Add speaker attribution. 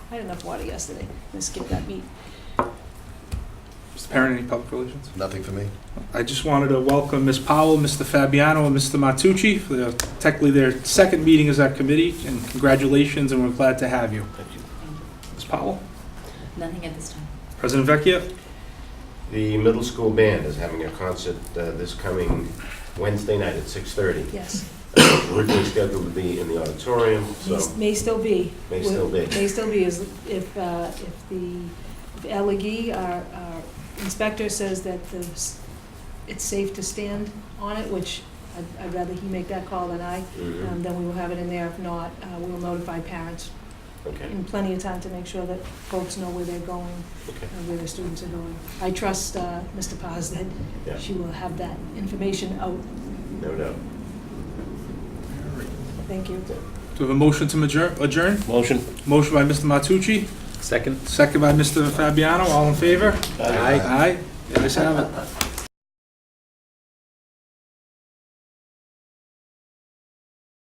Speaker 1: I had enough water yesterday, I skipped that meet.
Speaker 2: Mr. Perrin, any public relations?
Speaker 3: Nothing for me.
Speaker 2: I just wanted to welcome Ms. Powell, Mr. Fabiano, and Mr. Matucci for their- technically their second meeting as that committee, and congratulations, and we're glad to have you.
Speaker 3: Thank you.
Speaker 2: Ms. Powell,
Speaker 4: Nothing at this time.
Speaker 2: President Vecchia,
Speaker 5: The middle school band is having a concert uh, this coming Wednesday night at 6:30.
Speaker 1: Yes,
Speaker 5: Originally scheduled to be in the auditorium,
Speaker 1: May-
Speaker 5: so
Speaker 1: may still be.
Speaker 5: may still be.
Speaker 1: May still be, is if, uh, if the, if Elegee, our, our inspector says that the, s- it's safe to stand on it, which I'd- I'd rather he make that call than I,
Speaker 5: Mhm.
Speaker 1: um, then we will have it in there. If not, uh, we will notify parents
Speaker 5: Okay,
Speaker 1: in plenty of time to make sure that folks know where they're going
Speaker 5: okay.
Speaker 1: and where their students are going. I trust uh, Mr. Paz that
Speaker 5: Yeah.
Speaker 1: she will have that information out.
Speaker 5: No doubt.
Speaker 1: Thank you.
Speaker 2: do we have a motion to adjourn- adjourn?
Speaker 3: Motion.
Speaker 2: Motion by Mr. Matucci,
Speaker 3: Second.
Speaker 2: second by Mr. Fabiano, all in favor?
Speaker 3: Aye.
Speaker 2: Aye, the ayes have it.